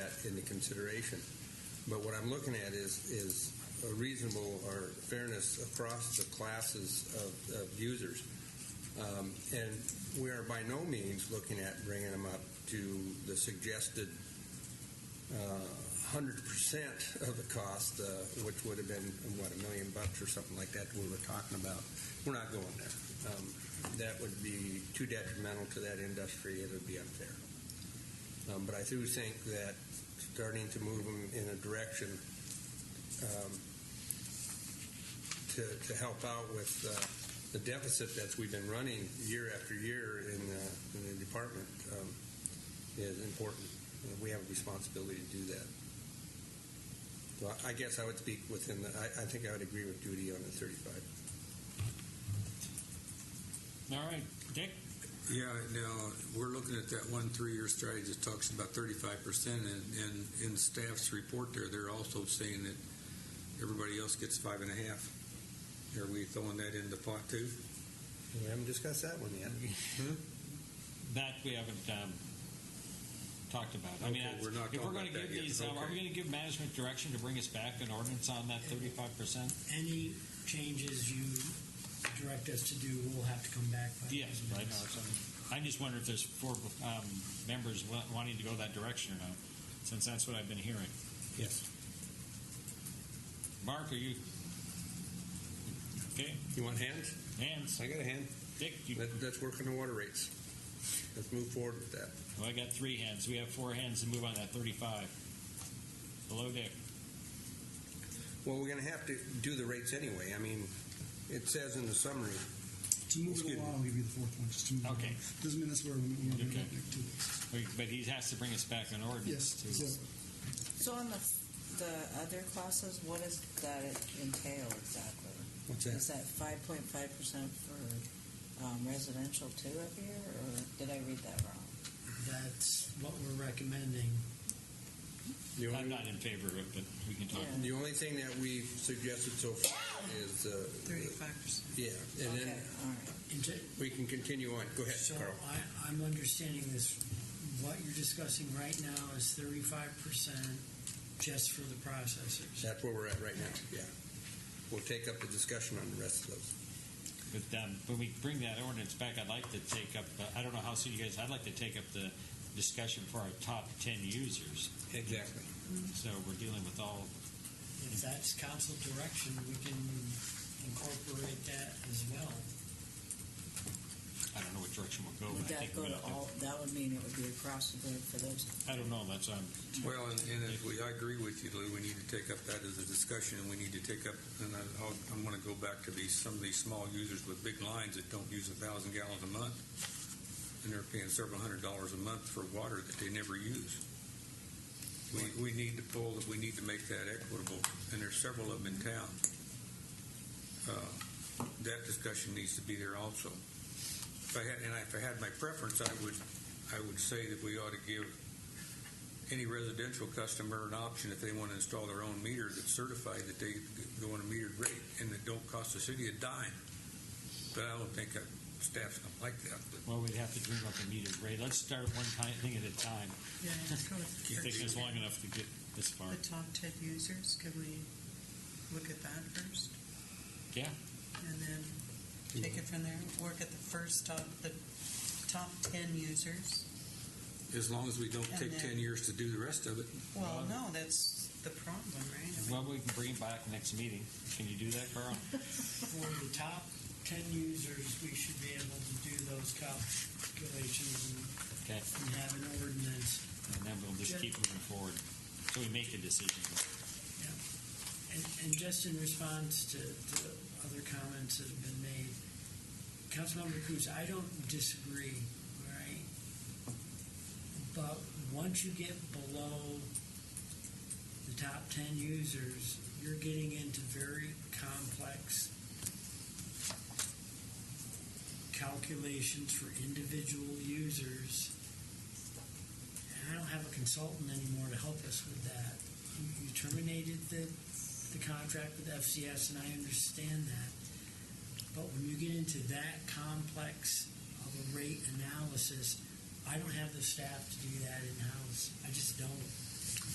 into consideration. But what I'm looking at is, is a reasonable or fairness across the classes of, of users. Um, and we are by no means looking at bringing them up to the suggested uh, hundred percent of the cost, uh, which would have been what a million bucks or something like that. We were talking about. We're not going there. Um, that would be too detrimental to that industry. It would be unfair. Um, but I do think that starting to move them in a direction um, to to help out with. Uh, the deficit that we've been running year after year in the, in the department um, is important. We have a responsibility to do that. So I- I guess I would speak within the, I, I think I would agree with Judy on the 35. All right, Dick? Yeah, now, we're looking at that one three-year strategy that talks about thirty-five percent, and, and in staff's report there, they're also saying that everybody else gets five and a half. Are we throwing that in the pot too? We haven't discussed that one yet. That we haven't um, talked about. I mean, Okay, that's- we're not if we're talking going to about that give yet. these, um, are we going Okay. to give management direction to bring us back an ordinance on that thirty-five percent? Any changes you direct us to do, we'll have to come back. by- Yes, right. I just wonder if there's four um, members wa- wanting to go that direction or not, since that's what I've been hearing. Yes. Mark, are you okay? You want hands? Hands. I got a hand. Dick, you, Let, let's work on the water rates. Let's move forward with that. well, I got three hands. We have four hands to move on that thirty-five. Hello, Dick. Well, we're going to have to do the rates anyway. I mean, it says in the summary, To move Excuse it me. along, I'll give you the fourth one, just to move it Okay. along. Doesn't mean that's where we- we're going to Okay. next two weeks. We- But he has to bring us back an ordinance. Yes, to- so So on the, the other classes, what does that entail exactly? what's Is that five point five percent for um, residential too up here, or did I read that wrong? That's what we're recommending. The I'm only, not in favor of it, but we can talk. Yeah. the only thing that we've suggested so far is, uh, percent. yeah, and Okay, then all Oh, right. And to- we can continue on. Go ahead, So Carl. I, I'm understanding this, what you're discussing right now is thirty-five percent just for the processors. That's where we're at right now. Yeah. We'll take up the discussion on the rest of those. But um, when we bring that ordinance back, I'd like to take up, uh, I don't know how soon you guys, I'd like to take up the discussion for our top 10 users. Exactly. So we're dealing with all, If that's council direction, we can incorporate that as well. I don't know what direction we'll go. Would but I think that go we to have all, that would mean it would be across the board for those, I don't know, that's, um, Well, and, and if we, I agree with you, Lou, we need to take up that as a discussion, and we need to take up, and I, I'll, I'm gonna go back to these, some of these small users with big lines that don't use a thousand gallons a month, and they're paying several hundred dollars a month for water that they never use. We, we need to pull, we need to make that equitable, and there's several of them in town. Uh, That discussion needs to be there also. If I had, and if I had my preference, I would, I would say that we ought to give any residential customer an option if they want to install their own meter that's certified that they go on a metered rate and that don't cost the city a dime. But I don't think that staff's going to like that. But well, we'd have to dream up a meter rate. Let's start one ti- thing at a time. Yeah, go with It's taken us long enough to get this far. the top 10 users, can we look at that first? Yeah. And then take it from there, work at the first top, the top 10 users? as long as we don't And take then- 10 years to do the rest of it, Well, no, that's the problem, right? I mean, Well, we can bring it back next meeting. Can you do that, Carl? For the top ten users, we should be able to do those calculations and- Okay. and have an ordinance And then we'll just Yeah. keep moving forward. So we make a decision. And, and just in response to, to other comments that have been made, Councilmember Cruz, I don't disagree, all right? But once you get below the top ten users, you're getting into very complex calculations for individual users. And I don't have a consultant anymore to help us with that. You- You terminated the the contract with FCS, and I understand that. But when you get into that complex of a rate analysis, I don't have the staff to do that in-house. I just don't.